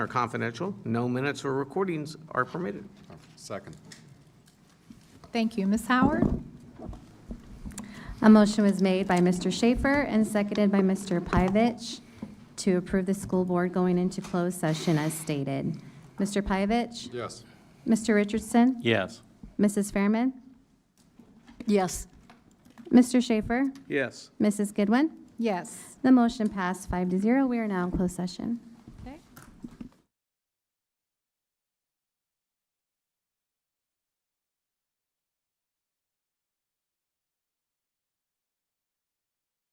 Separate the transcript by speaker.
Speaker 1: are confidential. No minutes or recordings are permitted.
Speaker 2: Second.
Speaker 3: Thank you. Ms. Howard?
Speaker 4: A motion was made by Mr. Schaefer and seconded by Mr. Pyavich to approve the school board going into closed session as stated. Mr. Pyavich?
Speaker 2: Yes.
Speaker 4: Mr. Richardson?
Speaker 5: Yes.
Speaker 4: Mrs. Fairman?
Speaker 6: Yes.
Speaker 4: Mr. Schaefer?
Speaker 1: Yes.
Speaker 4: Mrs. Goodwin?
Speaker 3: Yes.
Speaker 4: The motion passed five to zero. We are now in closed session.